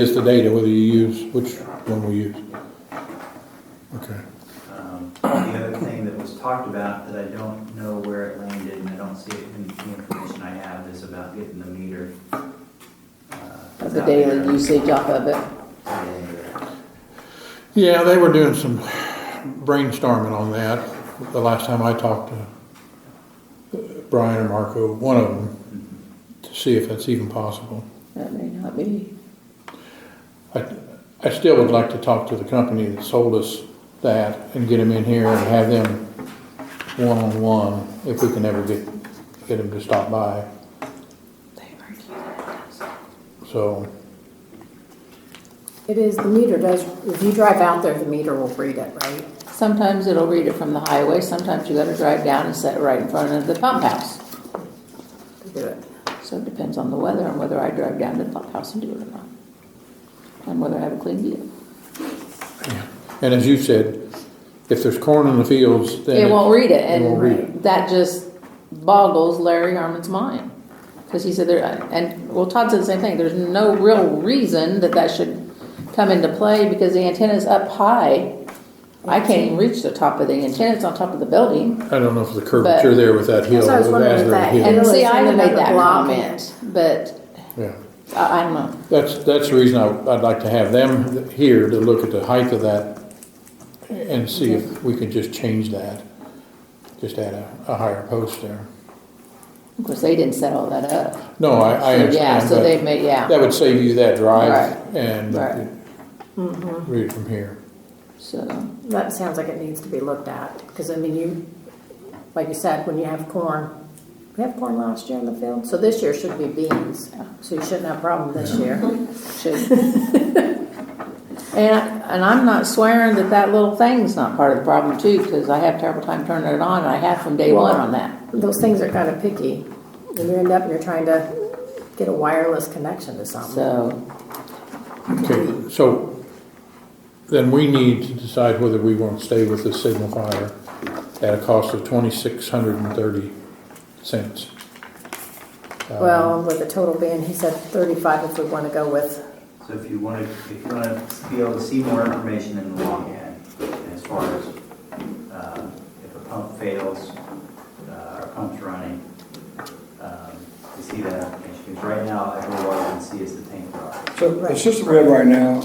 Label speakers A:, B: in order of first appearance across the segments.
A: It's the data, whether you use, which one we use. Okay.
B: Um, The other thing that was talked about that I don't know where it landed and I don't see it in the information I have is about getting the meter. uh,
C: the
B: out
C: daily
B: there.
C: usage off of it.
B: Yeah.
A: Yeah, they were doing some brainstorming on that the last time I talked to Brian or Marco, one of them, to see if that's even possible.
C: That may not be.
A: I, I still would like to talk to the company that sold us that and get them in here and have them one-on-one, if we can ever get, get them to stop by, so.
D: It is, the meter does, if you drive out there, the meter will read it, right?
C: Sometimes it'll read it from the highway, sometimes you gotta drive down and set it right in front of the pump house.
D: To do it.
C: So it depends on the weather and whether I drive down to the pump house and do it or not. And whether I have a clean view.
A: And as you said, if there's corn in the fields, then.
C: It won't read it,
A: won't read it.
C: and that just boggles Larry Harmon's mind. Because he said there, and, well, Todd said the same thing, there's no real reason that that should come into play because the antenna's up high. I can't even reach the top of the antenna, it's on top of the building.
A: I don't know if the curvature there with that hill.
D: That's what I was
A: with
D: wondering
A: Asbury
D: if that
A: Hill.
D: Really,
C: And
D: it's
C: see,
D: in
C: I even made
D: another
C: that
D: block.
C: comment, but
A: Yeah,
C: I, I don't know.
A: that's, that's the reason I, I'd like to have them here to look at the height of that and see if we could just change that. Just add a, a higher post there.
C: Of course, they didn't set all that up.
A: No, I, I
C: So, Yeah,
A: understand,
C: so they
A: but
C: made, yeah,
A: that would save you that drive
C: Right.
A: and
C: Right.
A: read it from here.
C: so.
D: That sounds like it needs to be looked at, because I mean, you, like you said, when you have corn, we have corn last year in the field, so this year should be beans, so you shouldn't have a problem this year.
C: should. And, and I'm not swearing that that little thing's not part of the problem too, because I have terrible time turning it on, and I have from day one on that.
D: Those things are kind of picky, and you end up, you're trying to get a wireless connection to something.
C: So,
A: Okay, so then we need to decide whether we want to stay with the signifier at a cost of twenty-six hundred and thirty cents. Uh,
D: Well, with the total ban, he said thirty-five if we want to go with,
B: So if you want to, if you want to be able to see more information in the long end, as far as um, if a pump fails, uh, our pump's running, um, to see that information. Because right now, I go all I can see is the tank rock.
E: So the system we have right now,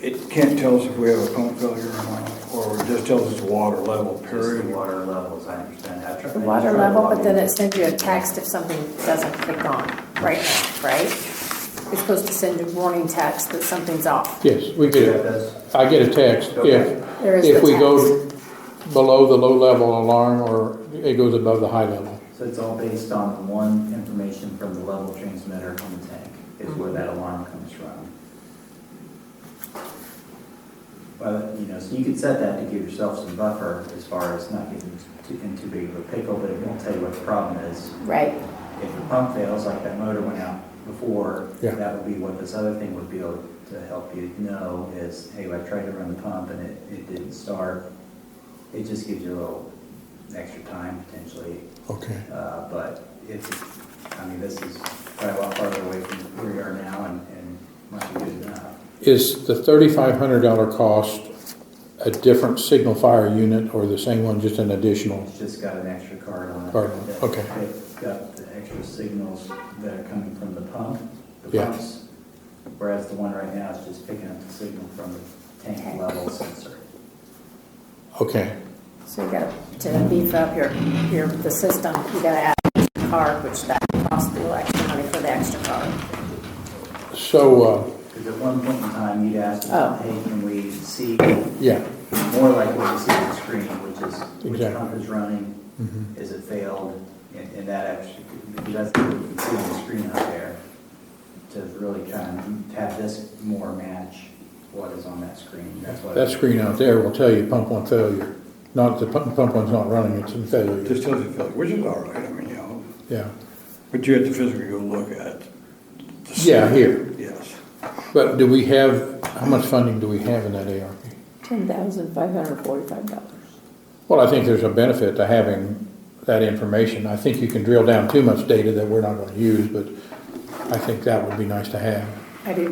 E: it can't tell us if we have a pump failure or not, or it just tells us the water level,
B: Just the
E: period.
B: water levels, I understand. I've tried-
D: the water
B: I've tried
D: level, but
B: logging.
D: then it sends you a text if something doesn't click on, right now, right? It's supposed to send you warning text that something's off.
A: Yes, we
B: Yeah,
A: get
B: it
A: it.
B: does.
A: I get a text
B: Okay.
A: if,
D: There is the
A: if
D: text.
A: we go below the low level alarm or it goes above the high level.
B: So it's all based on one information from the level transmitter on the tank, is where
D: Mm-hmm.
B: that alarm comes from. Well, you know, so you could set that to give yourself some buffer as far as not getting too, in too big of a pickle, but it won't tell you what the problem is.
D: Right.
B: If the pump fails, like that motor went out before,
A: Yeah.
B: that would be what this other thing would be able to help you know is, hey, I tried to run the pump and it, it didn't start. It just gives you a little extra time potentially
A: Okay.
B: uh, but it's, I mean, this is quite a lot farther away from where we are now and, and might be good enough.
A: Is the thirty-five hundred dollar cost a different signal fire unit or the same one, just an additional?
B: It's just got an extra card on it.
A: Card on it,
B: that-
A: okay.
B: that Got the extra signals that are coming from the pump, the
A: Yeah.
B: pumps, whereas the one right now is just picking up the signal from the tank level sensor.
A: Okay,
D: So you gotta, to beef up your, your, the system, you gotta add a card, which that costs a little extra money for the extra card.
A: so, uh,
B: Because at one point in time, you'd asked,
C: Oh.
B: hey, can we see
A: yeah,
B: more like what you see on the screen, which is, which
A: Exactly.
B: pump is running,
A: Mhm.
B: is it failed, and, and that actually, because that's what you can see on the screen out there, to really try and have this more match what is on that screen, that's what.
A: that screen out there will tell you pump one failure. Not, the pump, pump one's not running, it's in
E: It
A: failure,
E: just tells you failure, which is all right, I mean, you know,
A: yeah.
E: but you have to physically go look at. the
A: Yeah,
E: system.
A: here.
E: Yes.
A: But do we have, how much funding do we have in that ARP?
C: ten thousand five hundred forty-five dollars.
A: Well, I think there's a benefit to having that information. I think you can drill down too much data that we're not gonna use, but I think that would be nice to have.
D: I do